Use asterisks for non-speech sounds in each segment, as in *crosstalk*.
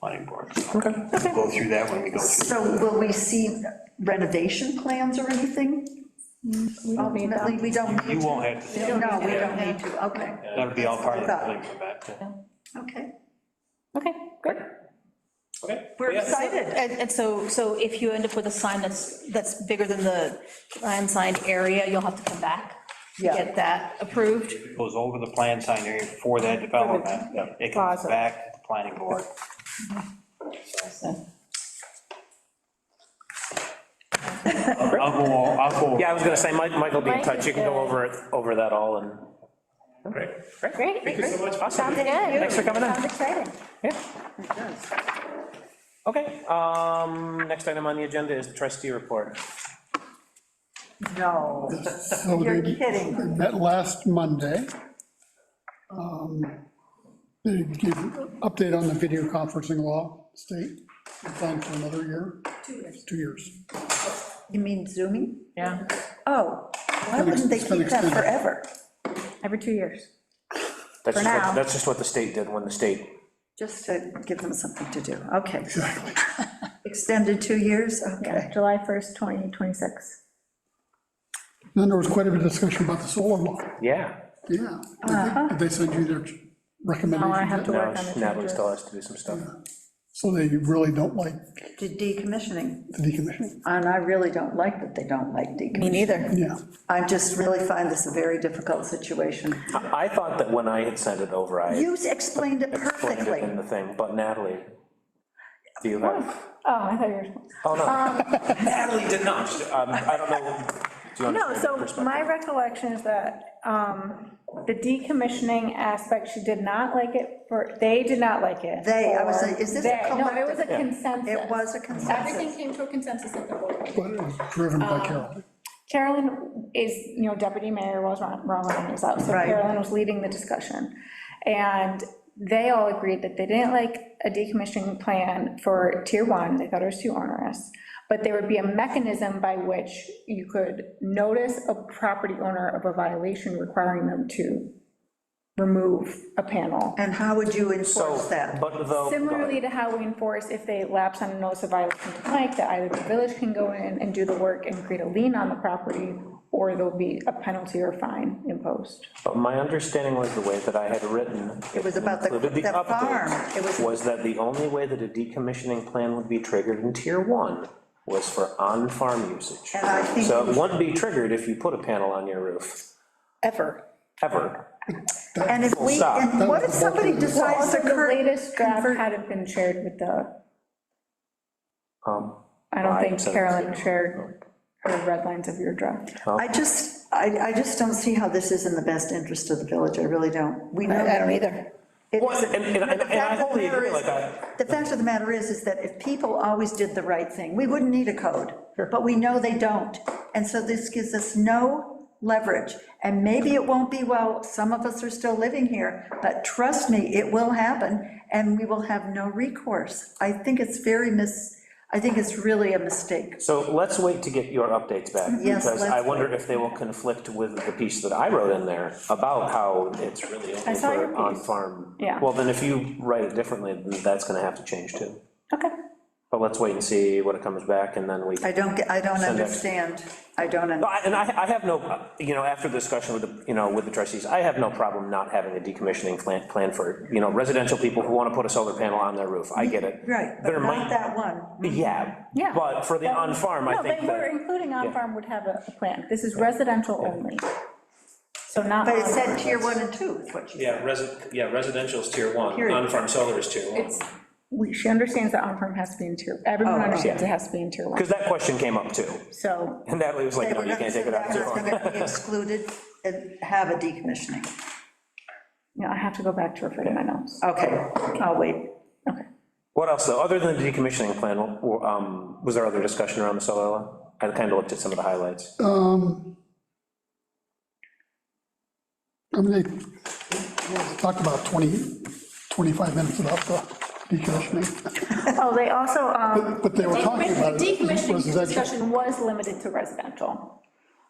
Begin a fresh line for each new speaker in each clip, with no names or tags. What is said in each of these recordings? planning board.
Okay.
We'll Go through that when we go through.
So will we see renovation plans or anything?
We don't need
Ultimately,
that.
we don't need
You
to.
won't have to, see it.
No, we don't need to, okay,
that'll be all part of the
Yeah.
building permit.
okay.
Okay, great.
Okay.
We're excited.
And, and so, so if you end up with a sign that's, that's bigger than the unsigned area, you'll have to come back to
Yeah.
get that approved.
Goes over the plan sign area for that development, it comes
Plaza.
back to the planning board.
So,
I'll I'll go, I'll go.
Yeah, I was gonna say, Mi- Mike will be in
Mike
touch,
is
you can go
good.
over, it over that all and. Great,
Great.
Thank you so much, awesome,
Sounds good. Thanks
for coming in.
Sounds exciting.
yeah. Okay, um, next item on the agenda is trustee report.
No,
So
you're
they-
kidding.
They met last Monday. Um, They gave an update on the video conferencing law state, it's on for another year. Two years. Two years.
You mean zooming?
Yeah.
Oh, why wouldn't they
It's been
keep that
extended.
forever?
Every two years.
That's
For
just what-
now.
That's just what the state did when the state,
Just to give them something to do, okay. Extended two years, okay.
July 1st, 2026.
Then there was quite a bit of discussion about the solar law,
yeah.
yeah. Did they- Did they send you their
Oh,
recommendations?
I have to
Now
work on the
Natalie
changes.
still has to do some stuff.
So they really don't like
To decommissioning,
the decommissioning,
and I really don't like that they don't like decommissioning.
Me neither.
yeah.
I just really find this a very difficult situation.
I I thought that when I had sent it over, I
You explained it
explained it in
perfectly.
the thing, but Natalie, do you have?
Oh, I thought you were.
Oh, no. *laughs* Natalie did not. Um, I don't know. Do you
No,
understand her
so
perspective?
my recollection is that um, the decommissioning aspect, she did not like it for, they did not like it.
They, I was like, is this a
They- No, it was a
collective?
consensus.
It was a
Everything
consensus.
came to a consensus at the board.
But it was driven by Carol.
Carolyn is, you know, deputy mayor was, Ron Ron Ryan was out, so
Right.
Carolyn was leading the discussion. And they all agreed that they didn't like a decommissioning plan for tier one, they thought it was too onerous. But there would be a mechanism by which you could notice a property owner of a violation requiring them to remove a panel.
And how would you
So,
enforce that?
but though.
Similarly to how we enforce if they lapse on a notice of violation to Mike, that either the village can go in and do the work and create a lien on the property, or there'll be a penalty or fine imposed.
But my understanding was the way that I had written.
It was about the-
included
the farm.
update,
It was-
Was that the only way that a decommissioning plan would be triggered in tier one was for on-farm usage.
And I think-
So it wouldn't be triggered if you put a panel on your roof,
Ever.
ever.
And if we,
Stop.
and what if somebody decides
Also,
to
the
cur-
latest draft
convert-
hadn't been shared with the,
Um,
I don't
I
think
said-
Carolyn shared her red lines of your draft.
I just, I, I just don't see how this is in the best interest of the village, I really don't. We know.
I don't either.
It
Well,
isn't.
and- and-
But the
and- and I
fact of the
wholly
matter
agree,
is-
like, I-
The fact of the matter is, is that if people always did the right thing, we wouldn't need a code, but we know they don't. And so this gives us no leverage, and maybe it won't be, well, some of us are still living here, but trust me, it will happen, and we will have no recourse. I think it's very mis, I think it's really a mistake.
So let's wait to get your updates back.
Yes,
Because I
let's
wonder if they will conflict with the piece that I wrote in there about how it's really only
saw your
for
piece.
on-farm.
Yeah.
Well, then if you write it differently, then that's gonna have to change too.
Okay.
But let's wait and see what it comes back, and then we,
I don't, get- I don't
Send it.
understand, I don't, un-
No, I- and I, I have no, you know, after the discussion with the, you know, with the trustees, I have no problem not having a decommissioning plan, plan for, you know, residential people who want to put a solar panel on their roof, I get it.
right, but
There
not
might-
that one.
Yeah.
Yeah.
But for the on-farm, I
No, they
think
were,
that,
including on-farm would have a a plan. This is residential only. So not.
But it
on-farm.
said tier one and two, is what you
Yeah, resi, yeah, residential's tier one,
Period.
on-farm solar is tier one.
It's, we- she understands that on-farm has to be in tier,
Oh,
everyone understands it has to be in tier one,
because that question came up too,
so.
and Natalie was like,
They
no,
were
you
gonna
can't
say
take it
that *laughs*
out of
was
tier one.
gonna be excluded and have a decommissioning.
Yeah, I have to go back to refer to my notes.
Okay, I'll wait.
Okay.
What else, though, other than the decommissioning plan, w- um, was there other discussion around the solar law? I kind of looked at some of the highlights.
Um, I mean, they talked about 20, 25 minutes about the decommissioning,
Oh, they also, um,
but they were talking
the
about it.
decommissioning
residential.
discussion was limited to residential.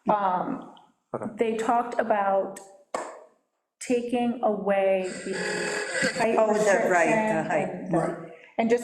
Um, They talked about taking away the height
Oh, the- right, the
restriction
height.
and-
Right.
And just